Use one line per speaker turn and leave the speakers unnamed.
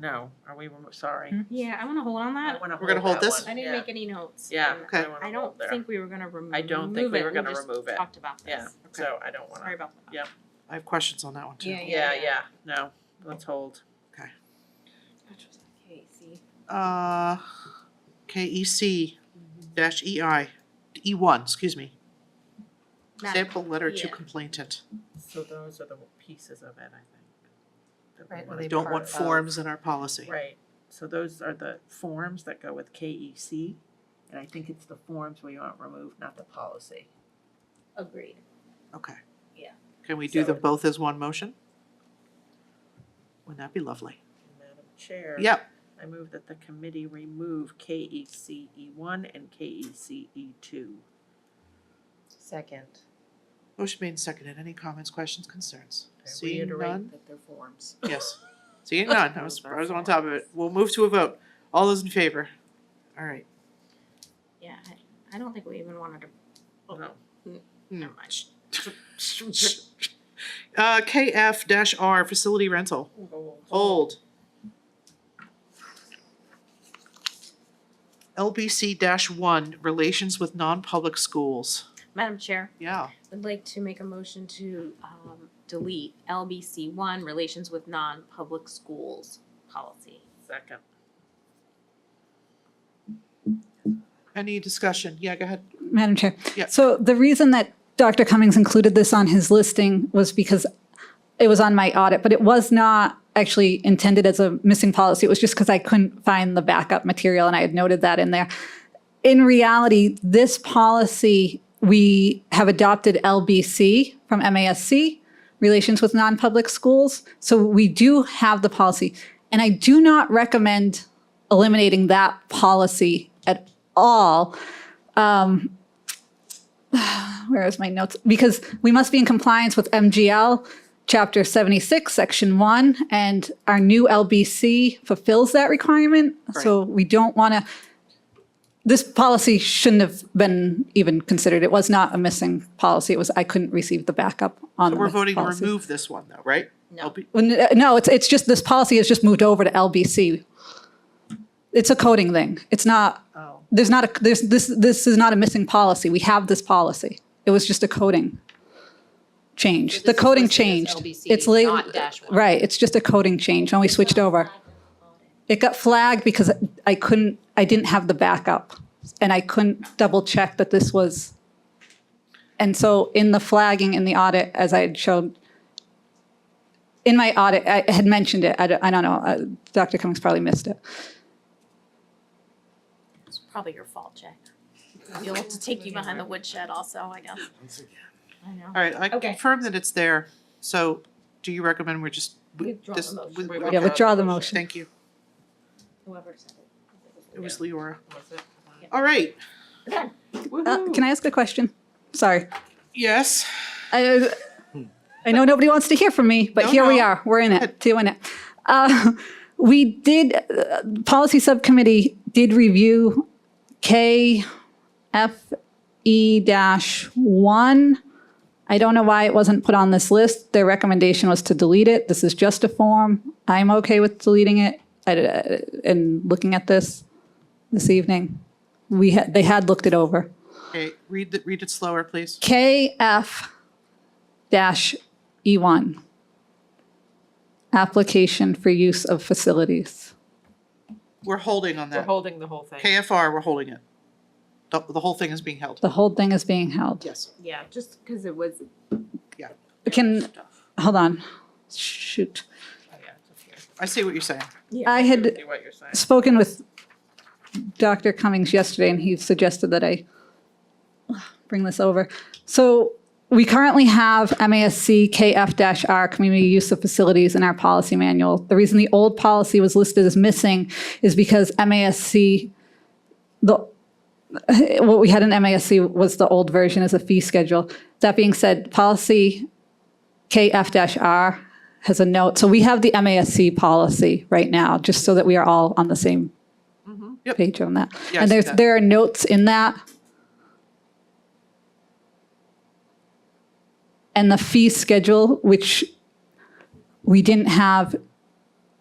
No, are we, remo- sorry.
Hmm?
Yeah, I wanna hold on
I
that.
wanna
We're gonna hold
that
this?
one.
Mm-hmm. I didn't
Yeah.
make any notes.
Yeah,
on that.
I
Okay.
wanna
I
hold
don't
there.
think we were gonna remove it.
I don't think we were gonna
just
remove it.
Talked about
Yeah,
this. Okay.
so I don't
Sorry
wanna,
about that.
Yeah.
I have questions on that one too.
yeah, yeah, no, let's hold.
Which was okay, see.
Uh, KEC dash E EI, E1, excuse me.
Not-
Sample letter to
yeah.
complainant.
So those are the pieces of it, I think. that we
Right, well,
wanna
they
Don't
cover.
want forms in our policy.
Right, so those are the forms that go with KEC, and I think it's the forms we want removed, not the policy.
Agreed.
Okay.
Yeah.
Can we do
So-
them both as one motion? Wouldn't that be lovely?
Madam Chair.
Yep,
I move that the committee remove KECE E one and KECE E two.
Second.
motion made and seconded. Any comments, questions, concerns?
I
Seeing
reiterate
none?
that they're forms.
Yes. Seeing none. I was, I was on top of it. We'll move to a vote. All those in favor? All right.
Yeah, I, I don't think we even wanted to,
No.
Hmm.
never mind.
Uh, KF dash R, facility rental,
Oh.
old. LBC dash one, relations with non-public schools,
Madam Chair,
yeah,
I'd like to make a motion to, um, delete LBC one, relations with non-public schools policy.
Second.
any discussion, yeah, go ahead,
Madam Chair.
Yeah.
So the reason that Dr. Cummings included this on his listing was because it was on my audit, but it was not actually intended as a missing policy. It was just because I couldn't find the backup material and I had noted that in there. In reality, this policy, we have adopted LBC from MASC, Relations with Non-Public Schools. So we do have the policy. And I do not recommend eliminating that policy at all um, where is my notes? Because we must be in compliance with MGL, Chapter 76, Section 1, and our new LBC fulfills that requirement. So we don't want to, this policy shouldn't have been even considered. It was not a missing policy. It was, I couldn't receive the backup on
so
the
we're voting to
policy.
remove this one though, right?
No.
LB
Well, n- No, it's, it's just, this policy has just moved over to LBC. It's a coding thing. It's not,
Oh.
there's not a, there's, this, this is not a missing policy. We have this policy. It was just a coding change. The coding changed. It's
late.
la- Right, it's just a coding change when we switched over. It got flagged because I couldn't, I didn't have the backup and I couldn't double check that this was. And so in the flagging in the audit, as I had showed, in my audit, I had mentioned it. I don't, I don't know. uh, Dr. Cummings probably missed it.
It's probably your fault, Jack. You'll have to take you behind the woodshed also, I guess. I know.
All right, I
Okay.
confirm that it's there, so do you recommend we're just? we-
Withdraw the
just-
motion.
we-
We
we-
Yeah, withdraw the motion.
Thank you,
Whoever said
it was Leora.
Was it?
All right,
it.
Uh,
Oh.
Can I ask a question? Sorry.
yes,
I, uh, I know nobody wants to hear from me, but
No,
here we
no.
are. We're in it, doing it. Uh, we did, uh, policy subcommittee did review KFE E dash one. I don't know why it wasn't put on this list. Their recommendation was to delete it. This is just a form. I'm okay with deleting it. I, uh, and looking at this this evening, we had, they had looked it over.
okay, read the, read it slower, please.
KF dash E1. Application for use of facilities.
We're holding on
We're
that,
holding the whole thing.
KFR, we're holding it. The, the whole thing is being held.
The whole thing is being held.
Yes.
Yeah, just because it was
Can, hold on, shoot.
I see what you're saying.
I had
See what you're saying.
spoken with Dr. Cummings yesterday and he suggested that I bring this over. So we currently have MASC KF-R, Community Use of Facilities in our policy manual. The reason the old policy was listed as missing is because MASC, the, what we had in MASC was the old version as a fee schedule. That being said, policy KF-R has a note. So we have the MASC policy right now, just so that we are all on the same
Mm-hmm. Yep.
page on that.
Yeah, I
And
see
there's,
that.
there are notes in that. And the fee schedule, which we didn't have